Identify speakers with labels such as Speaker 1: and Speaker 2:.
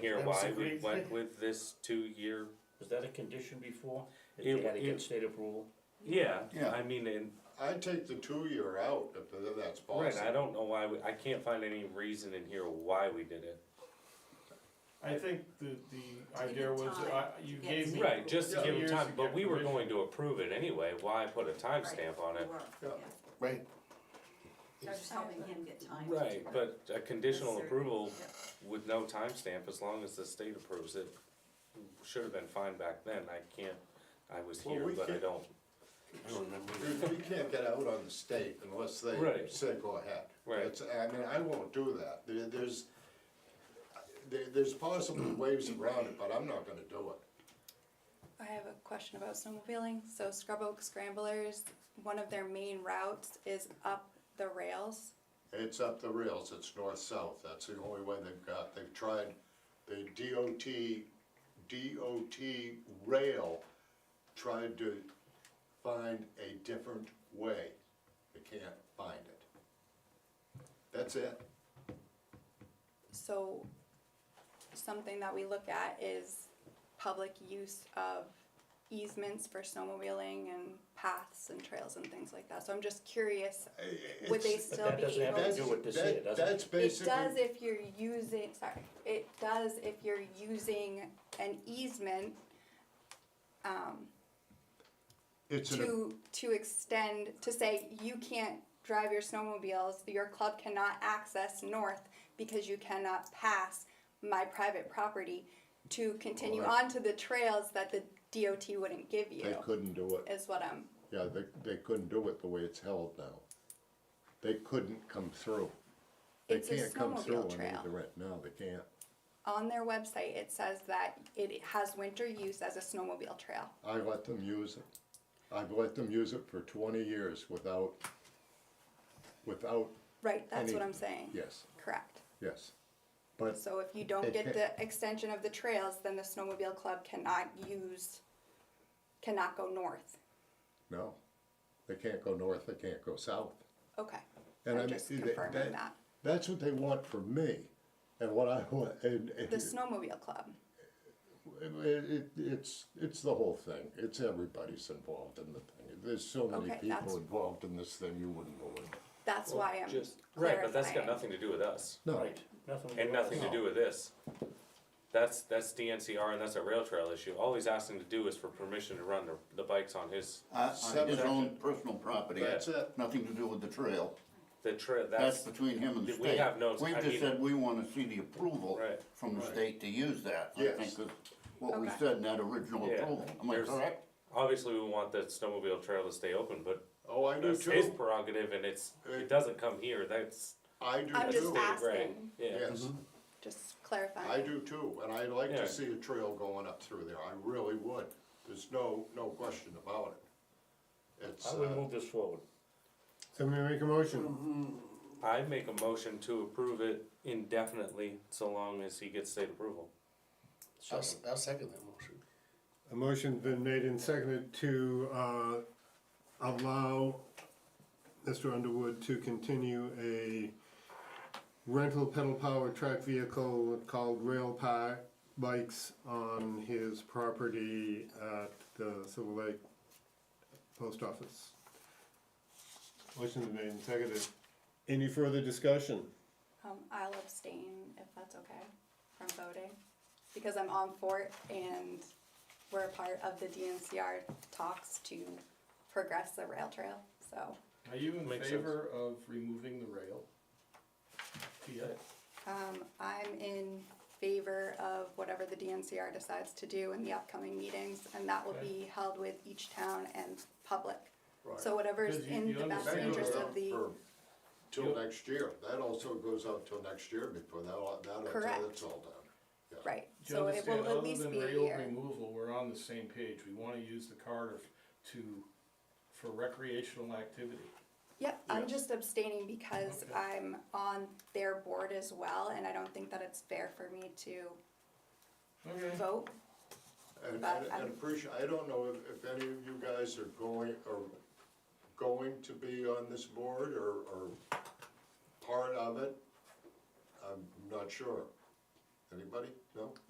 Speaker 1: here
Speaker 2: That was
Speaker 1: why
Speaker 2: a
Speaker 1: we
Speaker 2: great
Speaker 1: went
Speaker 2: thing.
Speaker 1: with this two-year.
Speaker 3: Was that a condition before? That
Speaker 1: It-
Speaker 3: they had to
Speaker 1: it-
Speaker 3: get state approval?
Speaker 1: Yeah,
Speaker 4: Yeah.
Speaker 1: I mean, and,
Speaker 4: I'd take the two-year out if that's
Speaker 1: right, I
Speaker 4: possible.
Speaker 1: don't know why, we- I can't find any reason in here why we did it.
Speaker 2: I think the, the
Speaker 5: To give
Speaker 2: idea
Speaker 5: it
Speaker 2: was,
Speaker 5: time
Speaker 2: uh,
Speaker 5: to
Speaker 2: you
Speaker 5: get
Speaker 2: gave me.
Speaker 5: to-
Speaker 1: Right, just to
Speaker 2: Yeah.
Speaker 1: give them
Speaker 2: Years
Speaker 1: time,
Speaker 2: to
Speaker 1: but
Speaker 2: get
Speaker 1: we were
Speaker 2: permission.
Speaker 1: going to approve it anyway, why put a
Speaker 5: Right,
Speaker 1: timestamp on
Speaker 5: we
Speaker 1: it?
Speaker 5: were,
Speaker 4: Yeah.
Speaker 5: yeah.
Speaker 4: Right.
Speaker 5: So I was just helping him get time. to
Speaker 1: Right,
Speaker 5: do it.
Speaker 1: but a conditional
Speaker 5: Yes, sir.
Speaker 1: approval
Speaker 5: Yep.
Speaker 1: with no timestamp, as long as the state approves it, should have been fine back then, I can't, I was
Speaker 4: Well,
Speaker 1: here,
Speaker 4: we
Speaker 1: but I
Speaker 4: can't-
Speaker 1: don't,
Speaker 3: I don't remember.
Speaker 4: We- We can't get out on the state unless they
Speaker 1: Right.
Speaker 4: say go ahead.
Speaker 1: Right.
Speaker 4: It's- I mean, I won't do that. There, there's, there, there's possible ways around it, but I'm not gonna do it.
Speaker 6: I have a question about snowmobiling. So Scrub Oak Scramblers, one of their main routes is up the rails.
Speaker 4: It's up the rails, it's north-south, that's the only way they've got. They've tried the DOT, DOT rail tried to find a different way. They can't find it. That's it.
Speaker 6: So something that we look at is public use of easements for snowmobiling and paths and trails and things like that. So I'm just curious, would they
Speaker 4: It's-
Speaker 6: still
Speaker 3: that
Speaker 6: be
Speaker 3: doesn't have
Speaker 6: able
Speaker 3: to
Speaker 4: That's-
Speaker 3: do
Speaker 6: to?
Speaker 3: with this
Speaker 4: that-
Speaker 3: here, doesn't it?
Speaker 4: That's
Speaker 6: It
Speaker 4: basically.
Speaker 6: does if you're using, sorry, it does if you're using an easement, um,
Speaker 4: It's an-
Speaker 6: to to extend to say you can't drive your snowmobiles your club cannot access north because you cannot pass my private property to continue
Speaker 4: Right.
Speaker 6: on to the trails that the DOT wouldn't give
Speaker 4: They
Speaker 6: you
Speaker 4: couldn't do it.
Speaker 6: is what I'm
Speaker 4: Yeah, they, they couldn't do it the way it's held now. They couldn't come through. They
Speaker 6: It's a
Speaker 4: can't come through
Speaker 6: snowmobile
Speaker 4: on
Speaker 6: trail.
Speaker 4: either end. No, they can't.
Speaker 6: on their website it says that it has winter use as a snowmobile trail
Speaker 4: I let them use it. I've let them use it for twenty years without, without,
Speaker 6: right that's what
Speaker 4: Any-
Speaker 6: I'm saying
Speaker 4: yes,
Speaker 6: correct
Speaker 4: yes. But
Speaker 6: so if you don't
Speaker 4: It
Speaker 6: get
Speaker 4: can-
Speaker 6: the extension of the trails then the snowmobile club cannot use cannot go north
Speaker 4: no, they can't go north, they can't go south.
Speaker 6: okay
Speaker 4: And
Speaker 6: I'm
Speaker 4: I mean,
Speaker 6: just
Speaker 4: they-
Speaker 6: confirming that.
Speaker 4: That's what they want from me and what I want, and. and-
Speaker 6: The snowmobile club.
Speaker 4: It, it, it's, it's the whole thing. It's everybody's involved in the thing. There's so many
Speaker 6: Okay, that's-
Speaker 4: people involved in this thing, you wouldn't know it.
Speaker 6: That's why I'm
Speaker 1: just, right, but that's got
Speaker 6: clarifying.
Speaker 1: nothing to do with us.
Speaker 4: No,
Speaker 3: Right, nothing.
Speaker 1: And
Speaker 3: about
Speaker 1: nothing to
Speaker 3: it.
Speaker 1: do with this. That's, that's DNCR and that's a rail trail issue. All he's asking to do is for permission to run the, the bikes on his,
Speaker 7: Uh, On his
Speaker 4: Seven.
Speaker 7: own personal property.
Speaker 1: That's
Speaker 4: it.
Speaker 7: Nothing to do with the trail.
Speaker 1: the trail,
Speaker 7: That's
Speaker 1: that's,
Speaker 7: between him and the
Speaker 1: We
Speaker 7: state.
Speaker 1: have no- I
Speaker 7: We've
Speaker 1: mean-
Speaker 7: just said we wanna see the approval
Speaker 1: Right,
Speaker 7: from the state to use that. I
Speaker 4: Yes.
Speaker 7: think is What we
Speaker 6: Okay.
Speaker 7: said in that original
Speaker 1: Yeah.
Speaker 7: approval. Am I
Speaker 1: There's-
Speaker 7: correct?
Speaker 1: obviously we want the snowmobile trail to stay open, but
Speaker 4: Oh, I do
Speaker 1: that's his
Speaker 4: too. Uh,
Speaker 1: prerogative and it's, it doesn't come here, that's,
Speaker 4: I do
Speaker 6: I'm just
Speaker 4: too.
Speaker 1: ask-
Speaker 6: asking,
Speaker 1: Right, yeah.
Speaker 4: Yes,
Speaker 6: just
Speaker 4: I
Speaker 6: clarifying.
Speaker 4: do too. And I'd like
Speaker 1: Yeah.
Speaker 4: to see a trail going up through there. I really would. There's no, no question about it. It's,
Speaker 3: I would
Speaker 4: uh,
Speaker 3: move this forward.
Speaker 4: somebody make a motion.
Speaker 1: I make a motion to approve it indefinitely, so long as he gets state approval.
Speaker 8: I'll, s- I'll second that motion.
Speaker 9: A motion's been made and seconded to uh, allow Mr. Underwood to continue a rental pedal-powered track vehicle called Rail Pack Bikes on his property at the Silver Lake Post Office. Motion's been made and seconded. Any further discussion?
Speaker 6: Um, I'll abstain if that's okay from voting because I'm on for it and we're a part of the DNCR talks to progress the rail trail. So,
Speaker 2: Are you in
Speaker 1: Makes
Speaker 2: favor of removing the rail? Yeah.
Speaker 6: um, I'm in favor of whatever the DNCR decides to do in the upcoming meetings and that will be held with each town and public. So whatever's
Speaker 2: Because you-
Speaker 6: in
Speaker 2: you
Speaker 6: the best
Speaker 4: That
Speaker 2: understand
Speaker 6: interest
Speaker 4: goes
Speaker 6: of
Speaker 4: out
Speaker 6: the.
Speaker 4: for, till next year. That also goes out till next year before that, that,
Speaker 6: Correct.
Speaker 4: until it's all done.
Speaker 6: Right,
Speaker 2: Do you
Speaker 6: so it
Speaker 2: understand,
Speaker 6: will at
Speaker 2: other
Speaker 6: least
Speaker 2: than
Speaker 6: be a
Speaker 2: rail
Speaker 6: year.
Speaker 2: removal, we're on the same page, we wanna use the Carter to, for recreational activity.
Speaker 6: Yep, I'm just abstaining because
Speaker 2: Okay.
Speaker 6: I'm on their board as well, and I don't think that it's fair for me to
Speaker 2: Okay.
Speaker 6: vote.
Speaker 4: And,
Speaker 6: But
Speaker 4: and,
Speaker 6: I'm-
Speaker 4: and appreciate, I don't know if, if any of you guys are going, are going to be on this board or, or part of it. I'm not sure. Anybody? No?